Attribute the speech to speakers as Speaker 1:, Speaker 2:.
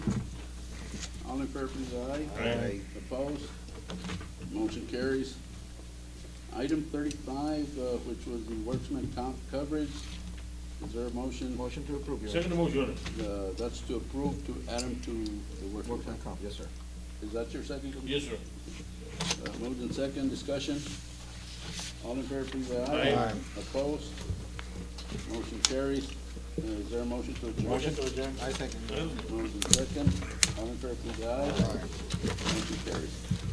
Speaker 1: All in fair, please, aye.
Speaker 2: Aye.
Speaker 1: Opposed? Motion carries. Item thirty-five, uh, which was the worksman comp coverage. Is there a motion?
Speaker 3: Motion to approve, Your Honor.
Speaker 2: Second motion, Your Honor.
Speaker 1: Uh, that's to approve to add him to the workman
Speaker 3: Workman
Speaker 1: comp.
Speaker 3: comp, yes, sir.
Speaker 1: Is that your second?
Speaker 2: Yes, sir.
Speaker 1: Uh, Moved in second, discussion. All in fair, please, aye.
Speaker 2: Aye.
Speaker 3: Aye.
Speaker 1: Opposed? Motion carries. Uh, Is there a motion to adjourn?
Speaker 3: adjourn. I second.
Speaker 1: Moved in second, all in fair, please, aye. Motion carries.